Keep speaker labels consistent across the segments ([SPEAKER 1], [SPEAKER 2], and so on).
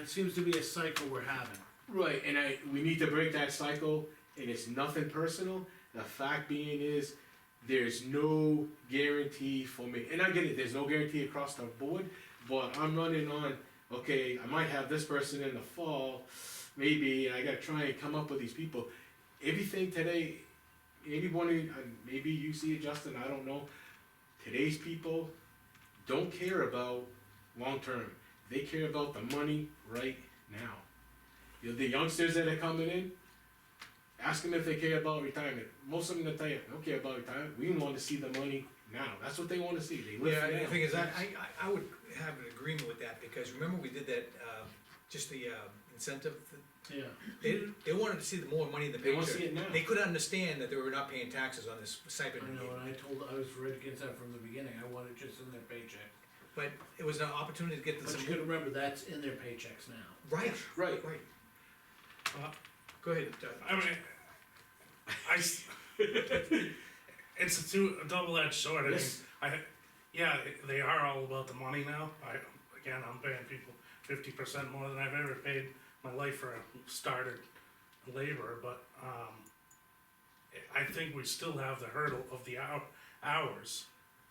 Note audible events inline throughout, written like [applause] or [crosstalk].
[SPEAKER 1] it seems to be a cycle we're having.
[SPEAKER 2] Right, and I, we need to break that cycle, and it's nothing personal. The fact being is, there's no guarantee for me, and I get it, there's no guarantee across the board, but I'm running on, okay, I might have this person in the fall, maybe, I gotta try and come up with these people. Everything today, maybe one of, you- uh, maybe you see it, Justin, I don't know. Today's people don't care about long-term, they care about the money right now. You know, the youngsters that are coming in, ask them if they care about retirement. Most of them will tell you, don't care about retirement. We want to see the money now. That's what they want to see. They live
[SPEAKER 3] Yeah,
[SPEAKER 2] for
[SPEAKER 3] and the
[SPEAKER 2] now.
[SPEAKER 3] thing is, I, I, I- I would have an agreement with that, because remember we did that, um, just the, um, incentive?
[SPEAKER 1] Yeah.
[SPEAKER 3] They, they wanted to see the more money in the
[SPEAKER 2] They
[SPEAKER 3] picture.
[SPEAKER 2] wanna see it now.
[SPEAKER 3] They couldn't understand that they were not paying taxes on this stipend.
[SPEAKER 1] I know, and I told, I was right against that from the beginning, I wanted just in their paycheck.
[SPEAKER 3] But it was an opportunity to get
[SPEAKER 1] But
[SPEAKER 3] some,
[SPEAKER 1] you gotta remember, that's in their paychecks now.
[SPEAKER 3] right,
[SPEAKER 2] right.
[SPEAKER 3] right.
[SPEAKER 4] Uh,
[SPEAKER 3] Go ahead, Doug.
[SPEAKER 4] I mean, I. s- [laughs] it's a two, a double-edged sword. I mean,
[SPEAKER 2] Yes.
[SPEAKER 4] I, yeah, they are all about the money now. I, again, I'm paying people fifty percent more than I've ever paid my life for a started laborer, but, um, I think we still have the hurdle of the hour, hours.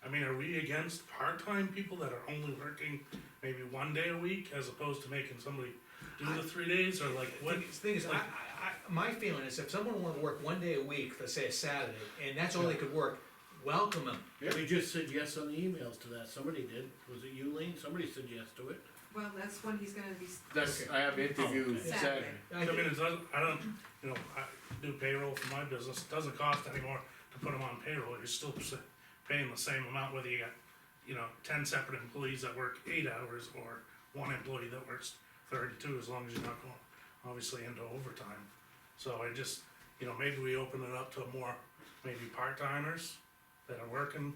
[SPEAKER 4] I mean, are we against part-time people that are only working maybe one day a week as opposed to making somebody do the three days or like what?
[SPEAKER 3] The thing is, I, I, I, my feeling is if someone wanted to work one day a week, let's say a Saturday, and that's all they could work, welcome them.
[SPEAKER 2] Yeah.
[SPEAKER 1] We just said yes on the emails to that, somebody did, was it you, Lean? Somebody said yes to it.
[SPEAKER 5] Well, that's when he's gonna be. s-
[SPEAKER 2] That's I have interviews
[SPEAKER 5] Okay.
[SPEAKER 2] Saturday.
[SPEAKER 3] I
[SPEAKER 4] I mean,
[SPEAKER 3] think-
[SPEAKER 4] it doesn't, I don't, you know, I do payroll for my business, it doesn't cost anymore to put them on payroll, you're still s- paying the same amount whether you got, you know, ten separate employees that work eight hours or one employee that works thirty-two, as long as you're not going, obviously into overtime. So I just, you know, maybe we open it up to more, maybe part-timers that are working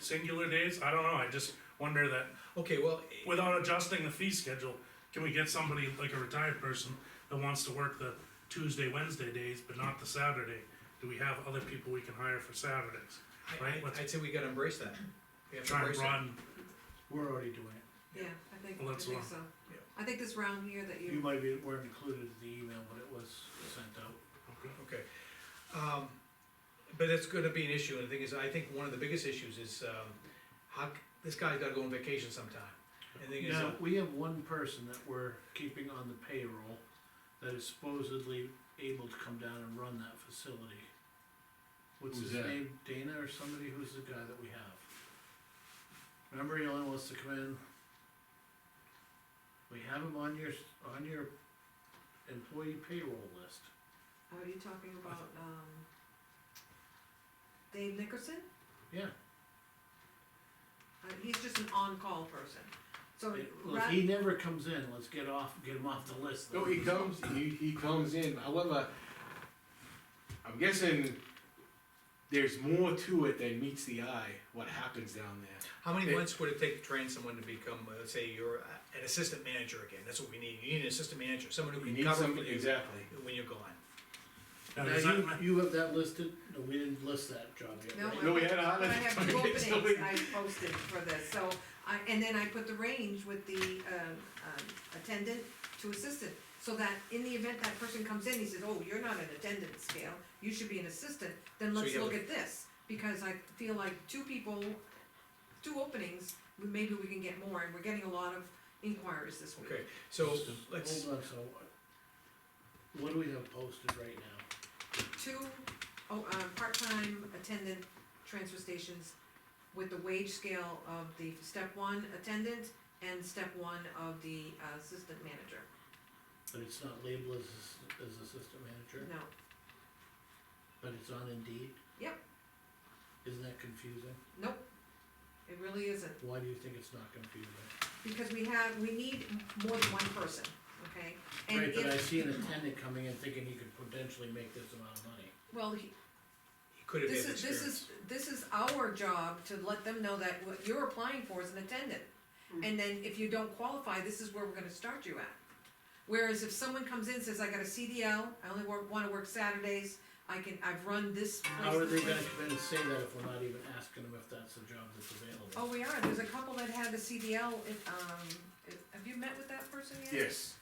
[SPEAKER 4] singular days, I don't know, I just wonder that
[SPEAKER 3] Okay, well,
[SPEAKER 4] without adjusting the fee schedule, can we get somebody like a retired person that wants to work the Tuesday, Wednesday days, but not the Saturday? Do we have other people we can hire for Saturdays?
[SPEAKER 3] I,
[SPEAKER 4] Right,
[SPEAKER 3] I,
[SPEAKER 4] let's-
[SPEAKER 3] I'd say we gotta embrace that. We have to
[SPEAKER 4] Try and
[SPEAKER 3] embrace that.
[SPEAKER 4] broaden,
[SPEAKER 1] We're already doing it.
[SPEAKER 5] Yeah, I think,
[SPEAKER 4] Well,
[SPEAKER 5] I
[SPEAKER 4] that's
[SPEAKER 5] think
[SPEAKER 4] one.
[SPEAKER 5] so.
[SPEAKER 3] Yeah.
[SPEAKER 5] I think this round here that
[SPEAKER 1] You
[SPEAKER 5] you,
[SPEAKER 1] might be, weren't included in the email, but it was sent out.
[SPEAKER 4] okay,
[SPEAKER 3] Okay, um, but that's gonna be an issue, and the thing is, I think one of the biggest issues is, um, how, c- this guy's gotta go on vacation sometime. And the thing is,
[SPEAKER 1] Now,
[SPEAKER 3] uh,
[SPEAKER 1] we have one person that we're keeping on the payroll that is supposedly able to come down and run that facility. What's
[SPEAKER 2] Who's
[SPEAKER 1] his
[SPEAKER 2] that?
[SPEAKER 1] name, Dana or somebody, who's the guy that we have? Remember, he only wants to come in. We have him on your, on your employee payroll list.
[SPEAKER 5] are you oh, talking about, um, Dave Nickerson?
[SPEAKER 1] Yeah.
[SPEAKER 5] Uh, he's just an on-call person, so.
[SPEAKER 1] Look,
[SPEAKER 5] ra-
[SPEAKER 1] he never comes in, let's get off, get him off the list.
[SPEAKER 2] No, he comes. He, he comes in. However, I'm guessing there's more to it than meets the eye. What happens down there?
[SPEAKER 3] how many
[SPEAKER 2] it-
[SPEAKER 3] months would it take to train someone to become, uh, let's say, you're a- an assistant manager again, that's what we need, you need an assistant manager, someone who
[SPEAKER 2] You
[SPEAKER 3] can
[SPEAKER 2] need
[SPEAKER 3] cover
[SPEAKER 2] some
[SPEAKER 3] for you
[SPEAKER 2] exactly.
[SPEAKER 3] when you're gone.
[SPEAKER 4] now,
[SPEAKER 1] Now,
[SPEAKER 4] does
[SPEAKER 1] you,
[SPEAKER 4] that, ma-
[SPEAKER 1] you have that listed, no, we didn't list that job yet,
[SPEAKER 5] No,
[SPEAKER 1] right?
[SPEAKER 5] I-
[SPEAKER 2] No, we had a
[SPEAKER 5] But I
[SPEAKER 2] holiday. [laughs]
[SPEAKER 5] have two
[SPEAKER 2] target, so we-
[SPEAKER 5] openings I posted for this, so, I, and then I put the range with the, um, um, attendant to assistant. So that in the event that person comes in, he says, oh, you're not an attendant scale, you should be an assistant, then
[SPEAKER 3] So
[SPEAKER 5] let's
[SPEAKER 3] you have
[SPEAKER 5] look
[SPEAKER 3] a-
[SPEAKER 5] at this. Because I feel like two people, two openings, maybe we can get more, and we're getting a lot of inquiries this week.
[SPEAKER 3] Okay, so, let's,
[SPEAKER 1] Hold on, so, uh, what do we have posted right now?
[SPEAKER 5] Two, oh, um, part-time attendant transfer stations with the wage scale of the step one attendant and step one of the uh, assistant manager.
[SPEAKER 1] But it's not labeled as, ass- as assistant manager,
[SPEAKER 5] No,
[SPEAKER 1] but it's on Indeed?
[SPEAKER 5] Yep.
[SPEAKER 1] Isn't that confusing?
[SPEAKER 5] nope, it really isn't,
[SPEAKER 1] Why do you think it's not confusing?
[SPEAKER 5] because we have, we need more than one person, okay? And
[SPEAKER 1] Right, but I
[SPEAKER 5] if,
[SPEAKER 1] see an attendant coming in thinking he could potentially make this amount of money.
[SPEAKER 5] well, he-
[SPEAKER 3] he could have had
[SPEAKER 5] this
[SPEAKER 3] experience.
[SPEAKER 5] is, this is, this is our job to let them know that what you're applying for is an attendant. And then if you don't qualify, this is where we're gonna start you at. Whereas if someone comes in, and says, I got a CDL, I only work, wanna work Saturdays, I can, I've run this
[SPEAKER 1] How are
[SPEAKER 5] place,
[SPEAKER 1] they
[SPEAKER 5] this
[SPEAKER 1] gonna
[SPEAKER 5] place."
[SPEAKER 1] come in and say that if we're not even asking them if that's the job that's
[SPEAKER 5] Oh,
[SPEAKER 1] available?
[SPEAKER 5] we are, there's a couple that had the CDL, it, um, it- have you met with that person yet?
[SPEAKER 2] Yes.